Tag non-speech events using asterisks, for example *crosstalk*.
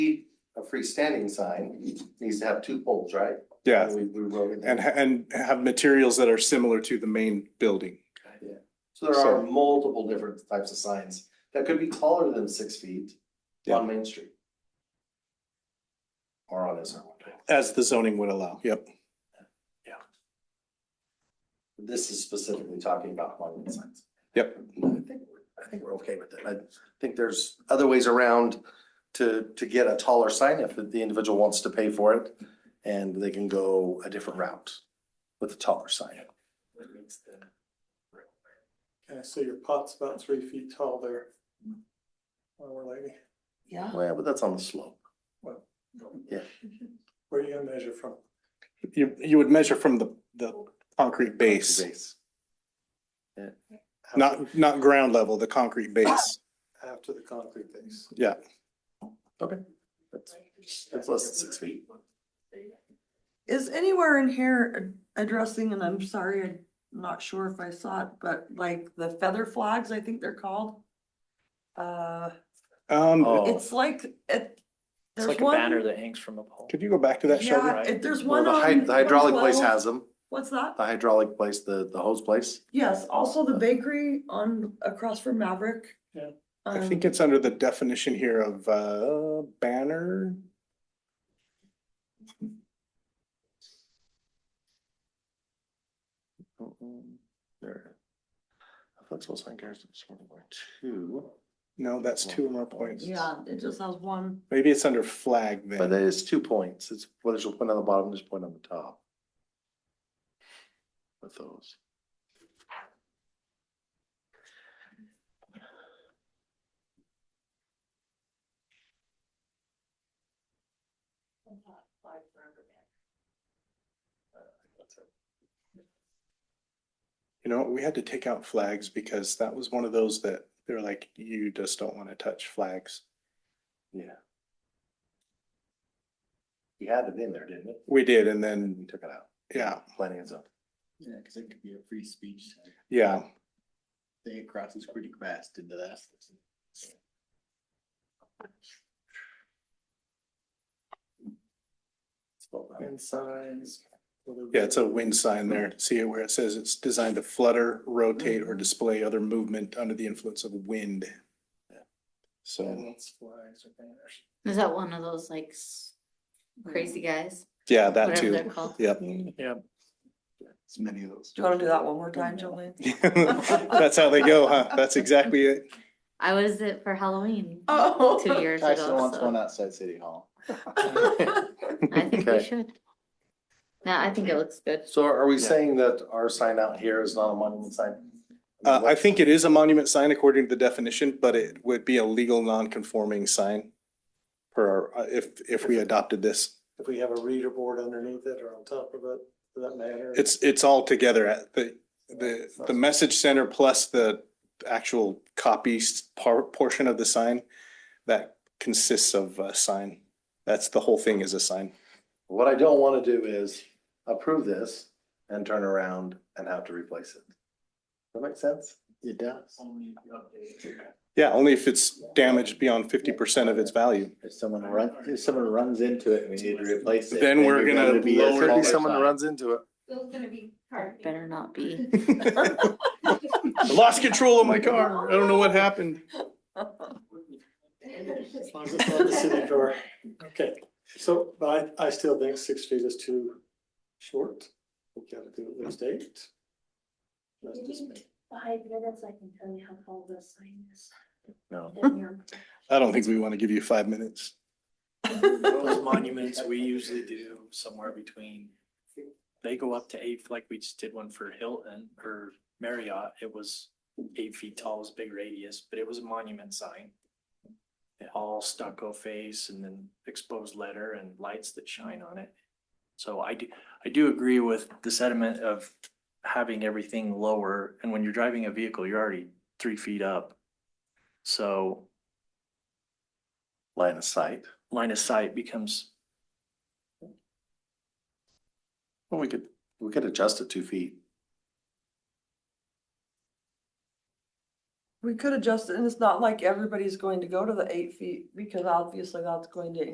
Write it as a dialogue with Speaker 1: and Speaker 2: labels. Speaker 1: freestanding sign needs to have two poles, right?
Speaker 2: Yeah,
Speaker 1: We, we wrote it. down.
Speaker 2: and, ha- and have materials that are similar to the main building.
Speaker 1: Yeah. So there are multiple different types of signs that could be taller than six feet
Speaker 2: Yeah.
Speaker 1: on Main Street. Or on SR one.
Speaker 2: As the zoning would allow, yep.
Speaker 1: This is specifically talking about monument signs.
Speaker 2: Yep.
Speaker 1: I think we're- I think we're okay with it. I think there's other ways around to, to get a taller sign if the individual wants to pay for it. And they can go a different route with a taller sign.
Speaker 3: Okay, so your pot's about three feet tall there. Well, we're like,
Speaker 4: Yeah.
Speaker 1: Well, but that's on the slope.
Speaker 3: where are you gonna measure from?
Speaker 2: You, you would measure from the, the concrete base,
Speaker 1: Base. Yeah.
Speaker 2: not, not ground level, the concrete base.
Speaker 3: After the concrete base.
Speaker 2: Yeah,
Speaker 1: Okay. That's, that's less than six feet.
Speaker 4: Is anywhere in here addressing, and I'm sorry, I'm not sure if I saw it, but like the feather flags, I think they're called. Uh,
Speaker 2: um,
Speaker 5: Mm.
Speaker 1: Oh.
Speaker 4: it's like, it,
Speaker 6: It's
Speaker 4: there's
Speaker 6: like a banner
Speaker 4: one.
Speaker 6: that hangs from a pole.
Speaker 2: could you go back to that, Shelby?
Speaker 4: Yeah, it- there's
Speaker 1: Well,
Speaker 4: one
Speaker 1: the hy-
Speaker 4: on.
Speaker 1: the hydraulic place
Speaker 4: 112.
Speaker 1: has Uh, them.
Speaker 4: What's that?
Speaker 1: The hydraulic place, the, the hose place.
Speaker 4: Yes, also the bakery on, across from Maverick.
Speaker 3: Yeah.
Speaker 2: I think
Speaker 4: Um,
Speaker 2: it's under the definition here of, uh, banner.
Speaker 1: Mm-mm, There. A Flexible sign carries one point two,
Speaker 2: No, that's two or more points.
Speaker 4: Yeah, it just has one.
Speaker 2: Maybe it's under flag
Speaker 1: but
Speaker 2: then.
Speaker 1: that is two points. It's, well, there's a point on the bottom, there's a point on the top. With those.
Speaker 2: You know, we had to take out flags because that was one of those that they were like, you just don't want to touch flags.
Speaker 1: Yeah. You had it in there, didn't it?
Speaker 2: We did, and
Speaker 1: You
Speaker 2: then,
Speaker 1: took it out.
Speaker 2: yeah,
Speaker 1: Planning is up.
Speaker 5: Yeah, because it could be a free speech. sign.
Speaker 2: yeah,
Speaker 5: They crosses pretty fast into that.
Speaker 3: And signs.
Speaker 2: yeah, it's a wind sign there. See where it says it's designed to flutter, rotate, or display other movement under the influence of wind. So,
Speaker 3: Flags or banners.
Speaker 7: Is that one of those like s- crazy guys?
Speaker 2: yeah, that
Speaker 7: Whatever
Speaker 2: too,
Speaker 7: they're called.
Speaker 2: yep.
Speaker 5: It's many of those.
Speaker 4: Do you wanna do that one more time, Jolene?
Speaker 2: *laughs* That's how they go, huh? That's exactly it.
Speaker 7: I was it for Halloween
Speaker 4: Oh.
Speaker 7: two
Speaker 4: *laughs*
Speaker 7: years *laughs*
Speaker 5: I still
Speaker 7: ago,
Speaker 5: want one
Speaker 7: so
Speaker 5: outside City Hall.
Speaker 7: I think we
Speaker 1: Okay.
Speaker 7: should. No, I think it looks good.
Speaker 1: So are we saying that our sign out here is not a monument sign?
Speaker 2: Uh, I think it is a monument sign according to the definition, but it would be a legal non-conforming sign. Per, our- uh, if, if we adopted this,
Speaker 3: If we have a reader board underneath it or on top of it, does that matter?
Speaker 2: it's, it's all together at the, the, the message center plus the actual copies par, portion of the sign. That consists of a sign. That's the whole thing is a sign.
Speaker 1: What I don't wanna do is approve this and turn around and have to replace it. Does that make sense?
Speaker 5: It does.
Speaker 2: Yeah, only if it's damaged beyond fifty percent of its value.
Speaker 5: If someone runs, if someone runs into it and we need to replace it.
Speaker 2: Then we're
Speaker 5: you're
Speaker 2: gonna
Speaker 5: be a
Speaker 2: lower- Could be
Speaker 5: smaller
Speaker 1: someone
Speaker 5: sign.
Speaker 1: runs into it.
Speaker 7: Better not be.
Speaker 2: *laughs* I Lost control of my car. I don't know what happened.
Speaker 3: As long as it's on the city drawer. Okay, so, but I, I still think six feet is too short. We gotta do at least eight. That's just me.
Speaker 8: Five minutes, I can tell you how tall this sign is.
Speaker 1: No.
Speaker 2: I don't think we want to give you five minutes.
Speaker 6: Those monuments, we usually do somewhere between, they go up to eight, like we just did one for Hilton or Marriott. It was eight feet tall, it was a big radius, but it was a monument sign. All stucco face and then exposed letter and lights that shine on it. So I do, I do agree with the sentiment of having everything lower. And when you're driving a vehicle, you're already three feet up. So
Speaker 1: Line of sight.
Speaker 6: line of sight becomes
Speaker 1: Well, we could, we could adjust it two feet.
Speaker 4: We could adjust it, and it's not like everybody's going to go to the eight feet, because obviously that's going to